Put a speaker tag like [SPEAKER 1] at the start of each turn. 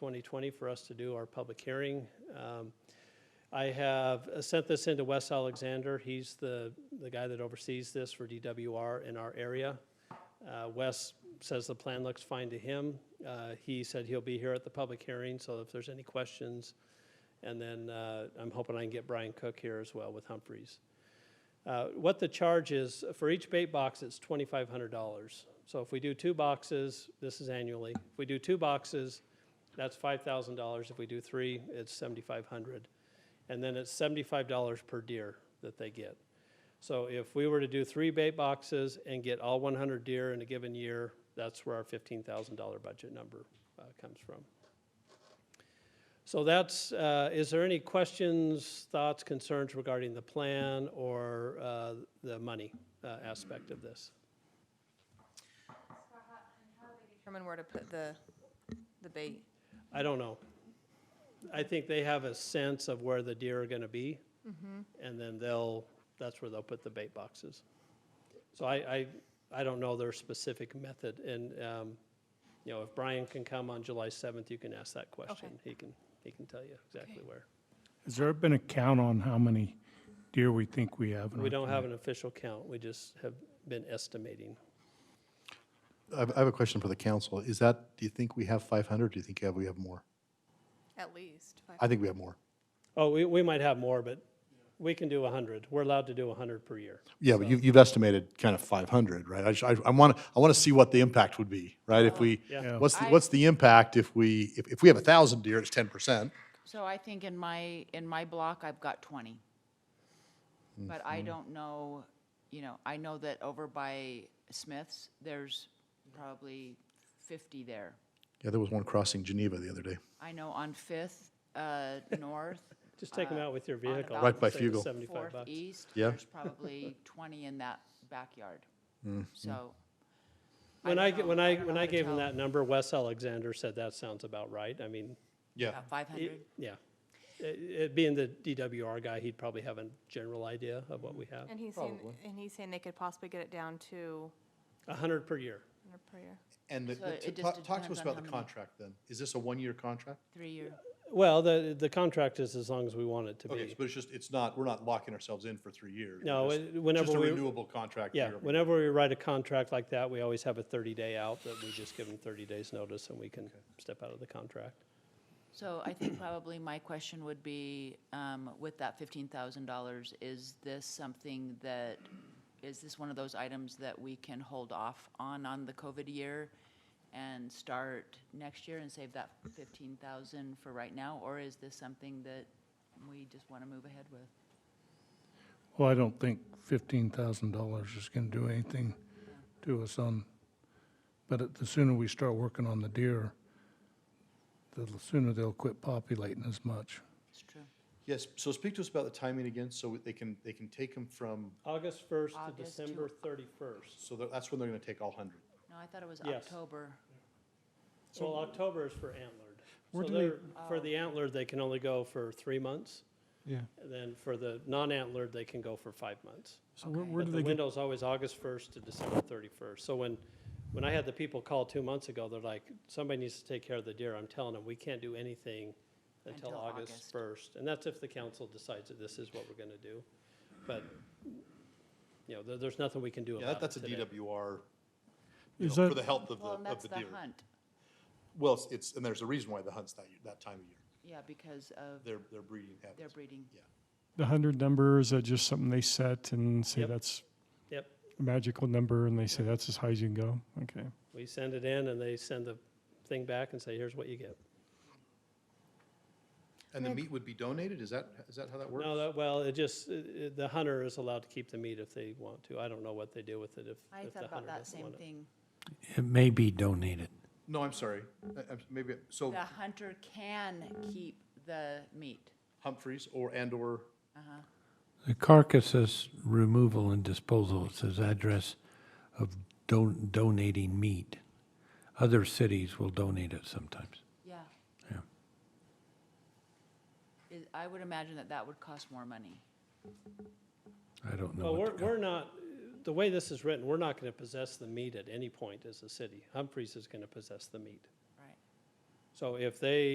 [SPEAKER 1] 2020 for us to do our public hearing. Um, I have uh, sent this into Wes Alexander. He's the, the guy that oversees this for DWR in our area. Uh, Wes says the plan looks fine to him. Uh, He said he'll be here at the public hearing, so if there's any questions. And then uh, I'm hoping I can get Brian Cook here as well with Humphreys. Uh, What the charge is, for each bait box, it's $2,500. So if we do two boxes, this is annually. If we do two boxes, that's $5,000. If we do three, it's 7,500. And then it's $75 per deer that they get. So if we were to do three bait boxes and get all 100 deer in a given year, that's where our $15,000 budget number uh, comes from. So that's, uh, is there any questions, thoughts, concerns regarding the plan or uh, the money uh, aspect of this?
[SPEAKER 2] Determine where to put the, the bait.
[SPEAKER 1] I don't know. I think they have a sense of where the deer are gonna be. And then they'll, that's where they'll put the bait boxes. So I, I, I don't know their specific method and, um, you know, if Brian can come on July seventh, you can ask that question. He can, he can tell you exactly
[SPEAKER 2] Okay.
[SPEAKER 1] where.
[SPEAKER 3] Has there been a count on how many deer we think we have? in
[SPEAKER 1] We
[SPEAKER 3] our
[SPEAKER 1] don't
[SPEAKER 3] community?
[SPEAKER 1] have an official count. We just have been estimating.
[SPEAKER 4] I have I have a question for the council. Is that, do you think we have 500? Do you think we have- we have more?
[SPEAKER 2] At least.
[SPEAKER 4] I think we have more.
[SPEAKER 1] Oh, we, we might have more, but we can do a hundred. We're allowed to do a hundred per year.
[SPEAKER 4] Yeah, but you- you've estimated kind of 500, right? I just- I want, I want to see what the impact would be, right? If we,
[SPEAKER 1] Yeah.
[SPEAKER 4] what's, the- what's the impact if we, if if we have 1,000 deer, it's 10%?
[SPEAKER 5] So I think in my, in my block, I've got twenty.
[SPEAKER 4] Hmm,
[SPEAKER 5] But I don't know, you know, I know that over by Smith's, there's probably fifty there.
[SPEAKER 4] Yeah, there was one crossing Geneva the other day.
[SPEAKER 5] I know on Fifth, uh, North,
[SPEAKER 1] Just take them out with your
[SPEAKER 5] on
[SPEAKER 1] vehicle.
[SPEAKER 5] about Right
[SPEAKER 4] by
[SPEAKER 1] Save the
[SPEAKER 4] Fugle.
[SPEAKER 1] Seventy-five
[SPEAKER 5] Fourth,
[SPEAKER 1] bucks.
[SPEAKER 5] East,
[SPEAKER 4] Yeah.
[SPEAKER 5] there's probably twenty in that backyard.
[SPEAKER 4] Hmm,
[SPEAKER 5] So,
[SPEAKER 1] When I,
[SPEAKER 5] don't
[SPEAKER 1] g-
[SPEAKER 5] know.
[SPEAKER 1] when
[SPEAKER 5] I
[SPEAKER 1] I,
[SPEAKER 5] don't
[SPEAKER 1] when
[SPEAKER 5] know
[SPEAKER 1] I
[SPEAKER 5] how to
[SPEAKER 1] gave him
[SPEAKER 5] tell.
[SPEAKER 1] that number, Wes Alexander said that sounds about right. I mean,
[SPEAKER 4] Yeah.
[SPEAKER 5] about five hundred?
[SPEAKER 1] it- yeah. It- it- Being the DWR guy, he'd probably have a general idea of what we have.
[SPEAKER 2] And he's saying, and he's saying they could possibly get it down to
[SPEAKER 1] A hundred per year.
[SPEAKER 2] under prayer.
[SPEAKER 4] And the-
[SPEAKER 5] So
[SPEAKER 4] the-
[SPEAKER 5] it just
[SPEAKER 4] talk talk to
[SPEAKER 5] depends
[SPEAKER 4] us
[SPEAKER 5] on
[SPEAKER 4] about
[SPEAKER 5] how
[SPEAKER 4] the
[SPEAKER 5] many-
[SPEAKER 4] contract then. Is this a one-year contract?
[SPEAKER 5] Three-year,
[SPEAKER 1] Well, the, the contract is as long as we want it to
[SPEAKER 4] Okay,
[SPEAKER 1] be.
[SPEAKER 4] but it's just, it's not, we're not locking ourselves in for three years.
[SPEAKER 1] No,
[SPEAKER 4] We're
[SPEAKER 1] it-
[SPEAKER 4] just-
[SPEAKER 1] whenever
[SPEAKER 4] Just a
[SPEAKER 1] we-
[SPEAKER 4] renewable contract.
[SPEAKER 1] Yeah,
[SPEAKER 4] year over-
[SPEAKER 1] whenever we write a contract like that, we always have a thirty-day out that we just give them thirty days' notice and we can step out of the contract.
[SPEAKER 5] So I think probably my question would be, um, with that fifteen thousand dollars, is this something that, is this one of those items that we can hold off on, on the COVID year? And start next year and save that fifteen thousand for right now, or is this something that we just wanna move ahead with?
[SPEAKER 3] Well, I don't think fifteen thousand dollars is gonna do anything to us on, but it- the sooner we start working on the deer, the sooner they'll quit populating as much.
[SPEAKER 5] It's true.
[SPEAKER 4] Yes, so speak to us about the timing again, so they can, they can take them from,
[SPEAKER 1] August first
[SPEAKER 5] August
[SPEAKER 1] to
[SPEAKER 5] to-
[SPEAKER 1] December thirty-first.
[SPEAKER 4] so that- that's when they're going to take all 100.
[SPEAKER 5] No, I thought it was
[SPEAKER 1] Yes.
[SPEAKER 5] October.
[SPEAKER 1] Well, October is for antlered.
[SPEAKER 6] Where
[SPEAKER 1] So
[SPEAKER 6] do they-
[SPEAKER 1] they're, for the antlered, they can only go for three months.
[SPEAKER 6] Yeah.
[SPEAKER 1] And then for the non-antlered, they can go for five months.
[SPEAKER 6] So where,
[SPEAKER 5] Okay.
[SPEAKER 6] where
[SPEAKER 1] But
[SPEAKER 6] do
[SPEAKER 1] the
[SPEAKER 6] they get,
[SPEAKER 1] window's always August 1st to December 31st. So when, when I had the people call two months ago, they're like, somebody needs to take care of the deer. I'm telling them, we can't do anything until
[SPEAKER 5] Until
[SPEAKER 1] August
[SPEAKER 5] August.
[SPEAKER 1] 1st. And that's if the council decides that this is what we're going to do. But, you know, there, there's nothing we can do
[SPEAKER 4] Yeah, that-
[SPEAKER 1] about it
[SPEAKER 4] that's a
[SPEAKER 1] today.
[SPEAKER 4] DWR, you
[SPEAKER 6] is
[SPEAKER 4] know, for
[SPEAKER 6] that-
[SPEAKER 4] the health of the,
[SPEAKER 5] Well, and
[SPEAKER 4] of
[SPEAKER 5] that's
[SPEAKER 4] the
[SPEAKER 5] the
[SPEAKER 4] deer.
[SPEAKER 5] hunt,
[SPEAKER 4] Well, it's- it's, and there's a reason why the hunt's that, year- that time of year.
[SPEAKER 5] yeah, because of
[SPEAKER 4] Their, their breeding
[SPEAKER 5] their
[SPEAKER 4] habits.
[SPEAKER 5] breeding.
[SPEAKER 6] the hundred number, is that just something they set and say
[SPEAKER 1] Yep.
[SPEAKER 6] that's
[SPEAKER 1] Yep.
[SPEAKER 6] a magical number and they say that's as high as you can go? Okay.
[SPEAKER 1] We send it in and they send the thing back and say, here's what you get.
[SPEAKER 4] And the meat would be donated? Is that, is that how that works?
[SPEAKER 1] No, that, well, it just, it- it- the hunter is allowed to keep the meat if they want to. I don't know what they do with it if,
[SPEAKER 5] I
[SPEAKER 1] if the
[SPEAKER 5] thought about
[SPEAKER 1] hunter
[SPEAKER 5] that
[SPEAKER 1] doesn't
[SPEAKER 5] same
[SPEAKER 1] want it.
[SPEAKER 5] thing.
[SPEAKER 7] It may be donated.
[SPEAKER 4] No, I'm sorry. I- I'm- Maybe, so
[SPEAKER 5] The hunter can keep the meat.
[SPEAKER 4] Humphreys or, and/or,
[SPEAKER 7] The carcasses removal and disposal, it says address of don- donating meat. Other cities will donate it sometimes.
[SPEAKER 5] Yeah.
[SPEAKER 7] Yeah.
[SPEAKER 5] Is- I would imagine that that would cost more money.
[SPEAKER 7] I don't know.
[SPEAKER 1] Well,
[SPEAKER 7] what
[SPEAKER 1] we're,
[SPEAKER 7] the-
[SPEAKER 1] we're not, the way this is written, we're not going to possess the meat at any point as a city. Humphreys is going to possess the meat.
[SPEAKER 5] Right.
[SPEAKER 1] So if they